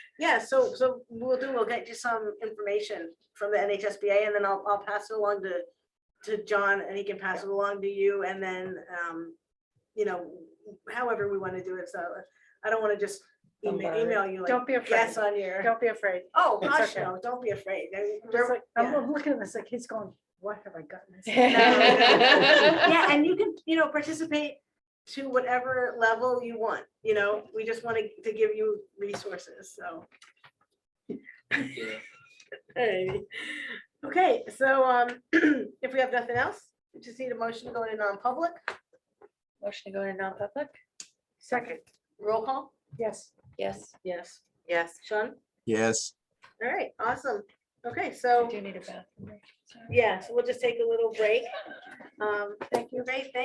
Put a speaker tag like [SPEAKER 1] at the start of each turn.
[SPEAKER 1] Yeah, so, so we'll do, we'll get you some information from the NHSBA and then I'll, I'll pass it along to, to John and he can pass it along to you and then, um, you know, however we want to do it. So I don't want to just email,
[SPEAKER 2] Bombard it.
[SPEAKER 1] email you like,
[SPEAKER 3] Don't be afraid.
[SPEAKER 1] yes on your,
[SPEAKER 3] Don't be afraid.
[SPEAKER 1] oh,
[SPEAKER 2] It's
[SPEAKER 1] gosh,
[SPEAKER 2] okay.
[SPEAKER 1] no, don't be afraid. There-
[SPEAKER 3] I'm
[SPEAKER 1] there-
[SPEAKER 3] just like- I'm
[SPEAKER 1] yeah.
[SPEAKER 3] I'm looking at this like he's going, what have I gotten? myself into?"
[SPEAKER 1] Yeah, and you can, you know, participate to whatever level you want, you know, we just wanted to give you resources, so. Alrighty. Okay, so um, if we have nothing else, we just need a motion to go into non-public,
[SPEAKER 4] Motion to go into non-public?
[SPEAKER 3] Second,
[SPEAKER 1] roll call?
[SPEAKER 3] yes.
[SPEAKER 4] Yes.
[SPEAKER 1] Yes.
[SPEAKER 2] Yes.
[SPEAKER 1] Sean?
[SPEAKER 5] Yes.
[SPEAKER 1] All right, awesome. Okay,
[SPEAKER 4] I
[SPEAKER 1] so,
[SPEAKER 4] do need a bathroom break. sorry.
[SPEAKER 1] yeah, so we'll just take a little break. Um, Thank you. Great, thank